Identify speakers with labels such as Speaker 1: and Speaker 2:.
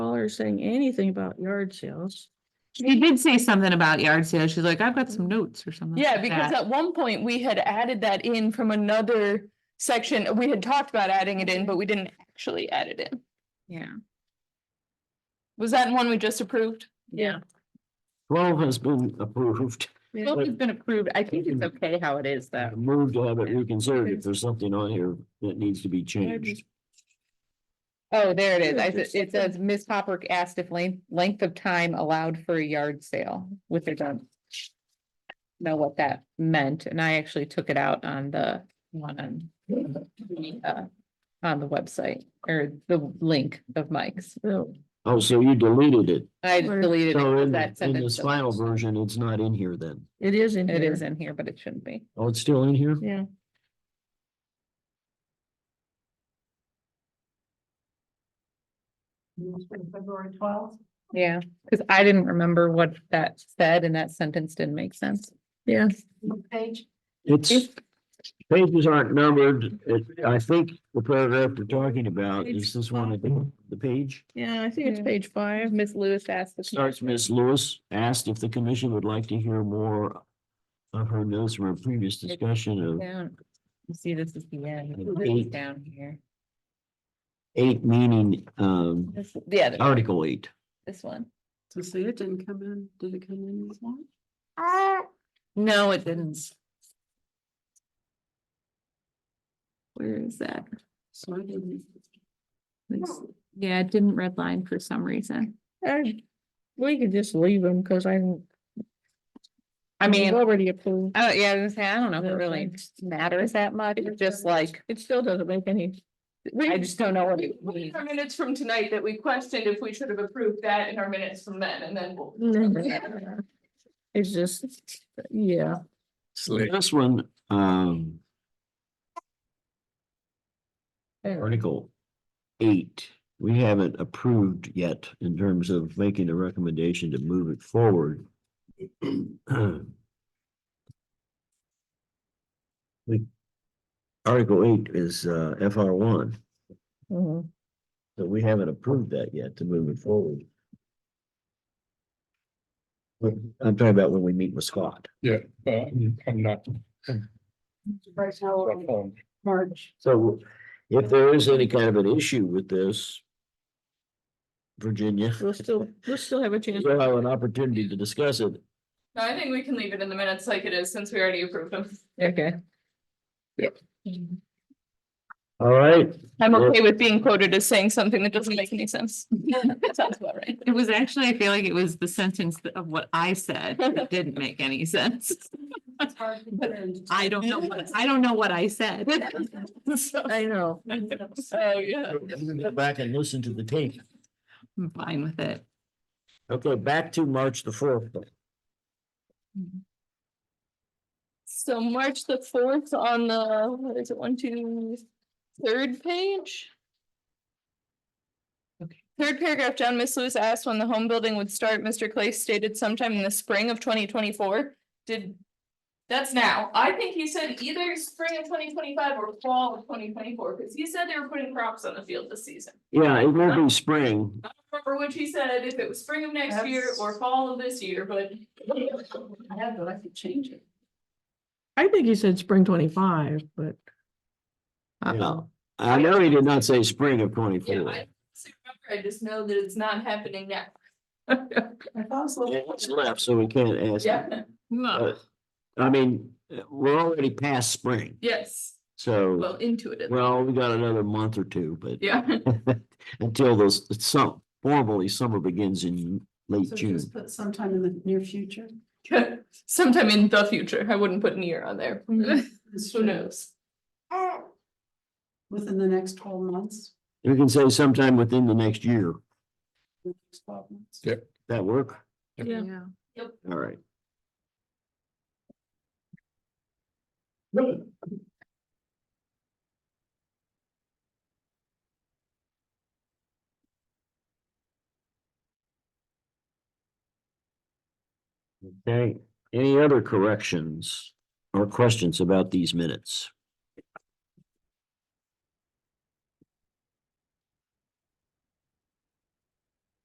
Speaker 1: Keller saying anything about yard sales.
Speaker 2: She did say something about yard sales. She's like, I've got some notes or something.
Speaker 3: Yeah,
Speaker 2: like
Speaker 3: because
Speaker 2: that."
Speaker 3: at one point we had added that in from another section. We had talked about adding it in, but we didn't actually add it in.
Speaker 2: Yeah.
Speaker 3: Was that one we just approved?
Speaker 2: Yeah.
Speaker 4: Twelve has been approved.
Speaker 5: Well, it's been approved. I think it's okay how it is though.
Speaker 4: Moved to have it reconsidered if there's something on here that needs to be changed.
Speaker 5: Oh, there it is.
Speaker 1: Yeah,
Speaker 5: I,
Speaker 1: there's
Speaker 5: said- it
Speaker 1: something.
Speaker 5: says, Ms. Hopper asked if length, length of time allowed for a yard sale, which I don't know what that meant, and I actually took it out on the one on the, uh, on the website, or the link of Mike's.
Speaker 1: So,
Speaker 4: Oh, so you deleted it.
Speaker 5: I
Speaker 1: Where-
Speaker 5: deleted it.
Speaker 4: So
Speaker 5: 'cause
Speaker 4: in,
Speaker 5: that
Speaker 4: in
Speaker 5: sentence
Speaker 4: this final
Speaker 5: doesn't-
Speaker 4: version, it's not in here then.
Speaker 1: It is in
Speaker 5: It is
Speaker 1: here.
Speaker 5: in here, but it shouldn't be.
Speaker 4: Oh, it's still in here?
Speaker 1: Yeah.
Speaker 6: February twelfth.
Speaker 5: Yeah, because I didn't remember what that said, and that sentence didn't make sense.
Speaker 1: Yeah.
Speaker 6: Page,
Speaker 4: It's, pages aren't numbered. It, I think the paragraph we're talking about is this one, at the- the page.
Speaker 1: Yeah, I think it's
Speaker 5: Yeah.
Speaker 1: page five.
Speaker 5: Ms. Lewis asked. the
Speaker 4: Starts, Ms. Lewis asked if the commission would like to hear more of her notes from her previous discussion of
Speaker 5: Down. You see, this is the end,
Speaker 4: Like
Speaker 5: This is
Speaker 4: eight.
Speaker 5: down here.
Speaker 4: eight meaning, um,
Speaker 5: This, the other,
Speaker 4: Article eight.
Speaker 5: this one.
Speaker 6: to see it didn't come in, did it come in this one? Uh,
Speaker 2: No, it didn't.
Speaker 5: Where is that?
Speaker 6: So I didn't.
Speaker 2: Yeah, it didn't redline for some reason.
Speaker 1: I- We could just leave them because I.
Speaker 5: I mean, oh,
Speaker 1: Already approved.
Speaker 5: yeah, I was gonna say, I don't know if it really
Speaker 1: Okay.
Speaker 5: matters that much, it's just like,
Speaker 1: It still doesn't make any,
Speaker 5: I just don't know what it
Speaker 3: We
Speaker 5: means.
Speaker 3: have minutes from tonight that we questioned if we should have approved that in our minutes from then, and then we'll.
Speaker 1: it's just, yeah.
Speaker 4: This one, um. Article eight, we haven't approved yet in terms of making a recommendation to move it forward. We, Article eight is uh FR one,
Speaker 1: Mhm.
Speaker 4: so we haven't approved that yet to move it forward. But I'm talking about when we meet with Scott.
Speaker 7: Well, I'm not.
Speaker 6: Right now, we're in
Speaker 7: informed.
Speaker 6: March,
Speaker 4: So if there is any kind of an issue with this. Virginia.
Speaker 1: We'll still, we'll still have a chance.
Speaker 4: We'll have an opportunity to discuss it.
Speaker 3: No, I think we can leave it in the minutes like it is since we already approved them.
Speaker 5: Okay.
Speaker 4: All right,
Speaker 3: I'm
Speaker 4: Sure.
Speaker 3: okay with being quoted as saying something that doesn't make any sense. That sounds about right.
Speaker 2: It was actually, I feel like it was the sentence th- of what I said that didn't make any sense.
Speaker 6: it's hard to. put in.
Speaker 2: I don't know, what I don't know what I said. So,
Speaker 1: I know.
Speaker 3: Oh, yeah.
Speaker 4: you can go back and listen to the tape.
Speaker 2: I'm fine with it.
Speaker 4: Okay, back to March the fourth.
Speaker 3: So March the fourth on the, what is it, one, two, third page? Third paragraph down, Miss Lewis asked when the home building would start. Mr. Clay stated sometime in the spring of twenty twenty-four. Did, that's now. I think he said either spring of twenty twenty-five or fall of twenty twenty-four, because he said they were putting crops on the field this season.
Speaker 4: Yeah, it won't be spring.
Speaker 3: I don't remember which he said, if it was spring of next year or fall of this year, but
Speaker 6: I have, but I could change it.
Speaker 1: I think he said spring twenty-five, but.
Speaker 4: Uh-oh. I know he did not say spring of
Speaker 3: yeah,
Speaker 4: twenty-four.
Speaker 3: I I just know that it's not happening now.
Speaker 6: I thought it was a little-
Speaker 4: It's left, so we can't ask.
Speaker 3: Yeah,
Speaker 4: Uh, I mean, uh, we're already past spring,
Speaker 3: yes, well,
Speaker 4: so,
Speaker 3: into it.
Speaker 4: well, we got another month or two, but.
Speaker 3: Yeah,
Speaker 4: Until those, some, formally, summer begins in late
Speaker 6: So
Speaker 4: June.
Speaker 6: just put sometime in the near future.
Speaker 3: sometime in the future, I wouldn't put near on there, who
Speaker 6: This
Speaker 3: knows?
Speaker 6: Within the next twelve months.
Speaker 4: We can say sometime within the next year.
Speaker 6: the next 12 months.
Speaker 7: Yeah.
Speaker 4: That work?
Speaker 1: Yeah.
Speaker 4: All right. Okay, any other corrections or questions about these minutes?